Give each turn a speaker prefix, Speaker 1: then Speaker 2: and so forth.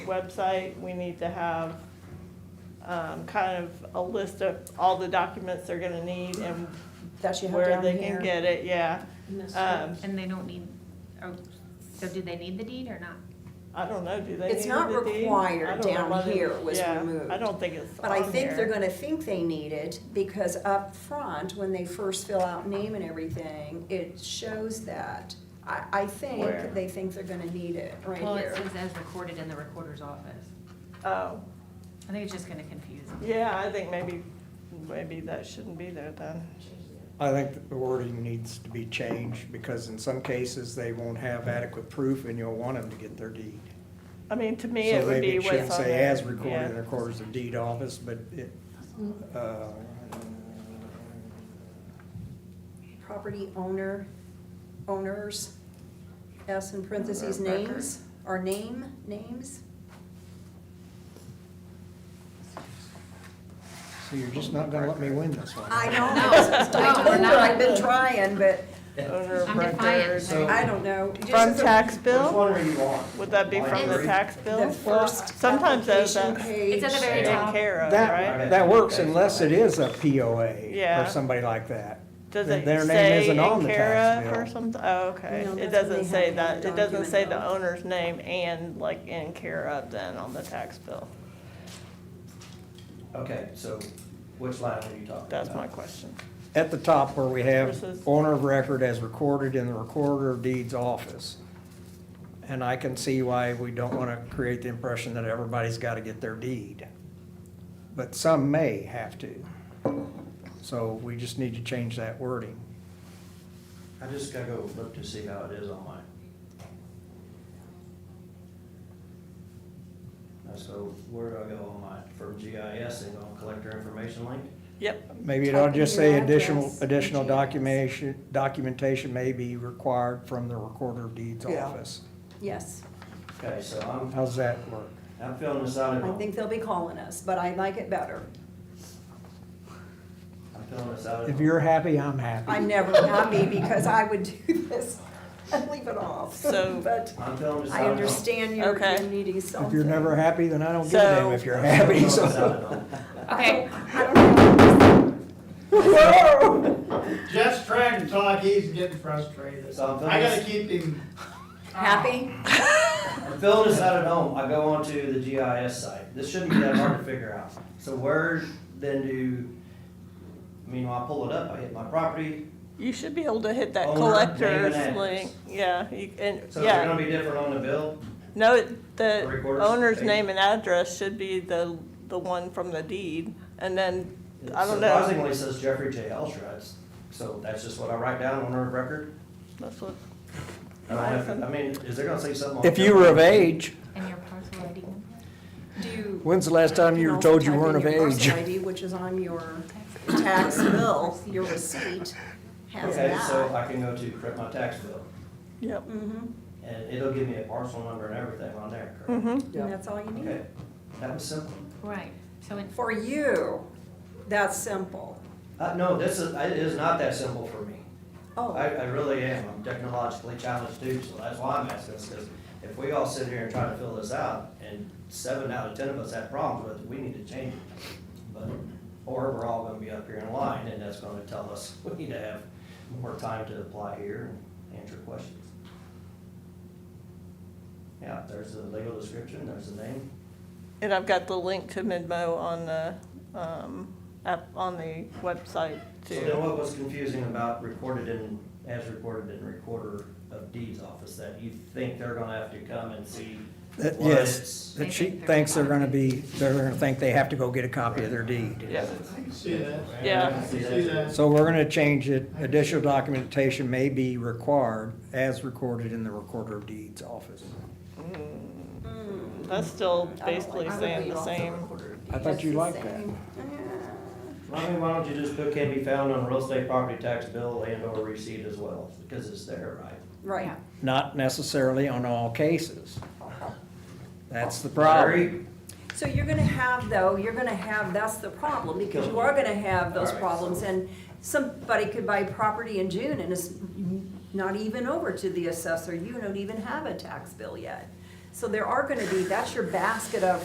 Speaker 1: website, we need to have um, kind of a list of all the documents they're gonna need and
Speaker 2: That you have
Speaker 1: where
Speaker 2: down
Speaker 1: they can
Speaker 2: here.
Speaker 1: get it, yeah. Um,
Speaker 3: And they don't need, oh, so do they need the deed or not?
Speaker 1: I don't know, do they need the deed?
Speaker 2: It's not required
Speaker 1: I don't know
Speaker 2: down
Speaker 1: whether-
Speaker 2: here was
Speaker 1: yeah,
Speaker 2: removed.
Speaker 1: I don't think it's
Speaker 2: But I
Speaker 1: on
Speaker 2: think they're
Speaker 1: here.
Speaker 2: gonna think they need it, because up front, when they first fill out name and everything, it shows that. I, I
Speaker 1: Where?
Speaker 2: think they think they're gonna need it right
Speaker 3: Well, it
Speaker 2: here.
Speaker 3: says as recorded in the recorder's office.
Speaker 1: Oh,
Speaker 3: I think it's just gonna confuse them.
Speaker 1: yeah, I think maybe, maybe that shouldn't be there then.
Speaker 4: I think that the wording needs to be changed, because in some cases, they won't have adequate proof, and you'll want them to get their deed.
Speaker 1: I mean, to me, it
Speaker 4: So
Speaker 1: would
Speaker 4: maybe
Speaker 1: be
Speaker 4: it should
Speaker 1: what's on
Speaker 4: say
Speaker 1: there.
Speaker 4: as recorded in
Speaker 1: yeah.
Speaker 4: the recorder's of deed office, but it, uh,
Speaker 2: Property owner, owners, S in parentheses,
Speaker 1: Owner of record.
Speaker 2: names, or name, names?
Speaker 4: so you're just not gonna let me win this one.
Speaker 2: I know,
Speaker 3: No,
Speaker 2: I
Speaker 3: no,
Speaker 2: told
Speaker 3: we're
Speaker 2: her I've
Speaker 3: not.
Speaker 2: been trying, but
Speaker 1: Owner of
Speaker 3: I'm defiant.
Speaker 1: record.
Speaker 4: So-
Speaker 2: I don't know.
Speaker 1: From
Speaker 2: Just the-
Speaker 1: tax bill?
Speaker 4: one do you want?
Speaker 1: Would that be from the
Speaker 3: Library?
Speaker 1: tax bill?
Speaker 2: The first
Speaker 1: Sometimes those,
Speaker 2: application
Speaker 1: that's
Speaker 2: page.
Speaker 3: It's at the very
Speaker 1: taken
Speaker 3: top.
Speaker 1: care of, right?
Speaker 4: That, that works unless it is a POA
Speaker 1: Yeah.
Speaker 4: or somebody like that.
Speaker 1: Does
Speaker 4: Then
Speaker 1: it
Speaker 4: their name
Speaker 1: say
Speaker 4: isn't on
Speaker 1: in
Speaker 4: the
Speaker 1: care
Speaker 4: tax
Speaker 1: of or
Speaker 4: bill.
Speaker 1: something? Oh, okay.
Speaker 2: No,
Speaker 1: It
Speaker 2: that's when
Speaker 1: doesn't
Speaker 2: they
Speaker 1: say
Speaker 2: have
Speaker 1: that,
Speaker 2: the
Speaker 1: it doesn't say the
Speaker 2: document.
Speaker 1: owner's name and like in care of then on the tax bill.
Speaker 5: Okay, so which line are you talking about?
Speaker 1: That's my question.
Speaker 4: At the top where we have
Speaker 1: Versus-
Speaker 4: owner of record as recorded in the recorder of deeds office. And I can see why we don't want to create the impression that everybody's got to get their deed. But some may have to. So we just need to change that wording.
Speaker 5: I just gotta go look to see how it is on mine. Uh, So where do I go on mine? From GIS and on collector information link?
Speaker 1: Yep,
Speaker 4: Maybe it ought to just say
Speaker 2: Type in your
Speaker 4: additional,
Speaker 2: address,
Speaker 4: additional
Speaker 2: address.
Speaker 4: documentation, documentation may be required from the recorder of deeds
Speaker 2: Yeah.
Speaker 4: office.
Speaker 2: Yes,
Speaker 5: Okay, so I'm,
Speaker 4: How's that work?
Speaker 5: I'm filling this out at
Speaker 2: I
Speaker 5: home.
Speaker 2: think they'll be calling us, but I like it better.
Speaker 5: I'm filling this out at
Speaker 4: If
Speaker 5: home.
Speaker 4: you're happy, I'm happy.
Speaker 2: I'm never happy because I would do this and leave it off.
Speaker 1: So-
Speaker 2: But
Speaker 5: I'm filling this out at
Speaker 2: I
Speaker 5: home.
Speaker 2: understand you're,
Speaker 1: Okay.
Speaker 2: you're needing something.
Speaker 4: If you're never happy, then I don't give a damn
Speaker 1: So-
Speaker 4: if you're
Speaker 5: I'm filling
Speaker 4: happy,
Speaker 5: this out
Speaker 4: so.
Speaker 5: at home.
Speaker 3: Okay,
Speaker 2: I don't know.
Speaker 6: Jeff's trying to talk, he's getting frustrated.
Speaker 5: So I'm filling
Speaker 6: I gotta
Speaker 5: this-
Speaker 6: keep him.
Speaker 2: Happy?
Speaker 1: Ah.
Speaker 5: I'm filling this out at home. I go onto the GIS site. This shouldn't be that hard to figure out. So where then do, I mean, when I pull it up, I hit my property.
Speaker 1: you should be able to hit that
Speaker 5: Owner,
Speaker 1: collector's
Speaker 5: name and
Speaker 1: link. Yeah, you- and,
Speaker 5: So they're
Speaker 1: yeah.
Speaker 5: gonna be different on the bill?
Speaker 1: No, it- the
Speaker 5: Recorder's
Speaker 1: owner's
Speaker 5: page.
Speaker 1: name and address should be the, the one from the deed. And then, I don't know,
Speaker 5: Surprisingly, it says Jeffrey J. Elstrud, so that's just what I write down on her record.
Speaker 1: that's what,
Speaker 5: I don't have, I mean, is there gonna say something? on
Speaker 4: If you were of age,
Speaker 3: and your parcel ID number?
Speaker 2: Do you?
Speaker 4: when's the last time
Speaker 2: you
Speaker 4: you
Speaker 2: can
Speaker 4: were
Speaker 2: also
Speaker 4: told you
Speaker 2: type in
Speaker 4: weren't of
Speaker 2: your parcel
Speaker 4: age?
Speaker 2: ID, which is on your tax bill, your receipt has
Speaker 5: Okay, so
Speaker 2: that.
Speaker 5: I can go to print my tax bill,
Speaker 1: yep.
Speaker 2: Mhm,
Speaker 5: and it'll give me a parcel number and everything on there, correct?
Speaker 1: hmm
Speaker 2: and that's all you need.
Speaker 5: Okay, that was simple.
Speaker 3: Right, so in,
Speaker 2: For you, that's simple.
Speaker 5: Uh, no, this is, it is not that simple for me. I,
Speaker 2: Oh,
Speaker 5: I really am, I'm technologically challenged too, so that's why I'm asking this, because if we all sit here and try to fill this out, and seven out of ten of us have problems with it, we need to change it. But, or we're all gonna be up here in line, and that's gonna tell us, we need to have more time to apply here and answer questions. Yeah, there's the legal description, there's the name,
Speaker 1: And I've got the link to Midmo on the, um, app, on the website
Speaker 5: so then
Speaker 1: too.
Speaker 5: what was confusing about recorded in, as recorded in recorder of deeds office, that you think they're gonna have to come and see
Speaker 4: That-
Speaker 5: what
Speaker 4: yes.
Speaker 5: it's-
Speaker 4: That she thinks they're gonna be, they're gonna think they have to go get a copy of their deed.
Speaker 1: Yeah,
Speaker 6: I can see that.
Speaker 1: Yeah.
Speaker 6: I can see that.
Speaker 4: So we're gonna change it, additional documentation may be required as recorded in the recorder of deeds office.
Speaker 1: that's still
Speaker 2: I don't
Speaker 1: basically
Speaker 2: like- I would
Speaker 1: saying
Speaker 2: leave
Speaker 1: the
Speaker 2: off the
Speaker 1: same.
Speaker 4: I thought you liked that.
Speaker 2: same.
Speaker 5: I mean, why don't you just put can be found on real estate property tax bill and or receipt as well, because it's there, right?
Speaker 2: right.
Speaker 3: Yeah.
Speaker 4: Not necessarily on all cases. That's the problem.
Speaker 5: Larry,
Speaker 2: So you're gonna have though, you're gonna have, that's the problem, because you are gonna have those
Speaker 5: Alright,
Speaker 2: problems,
Speaker 5: so-
Speaker 2: and somebody could buy property in June and it's not even over to the assessor, you don't even have a tax bill yet. So there are gonna be, that's your basket of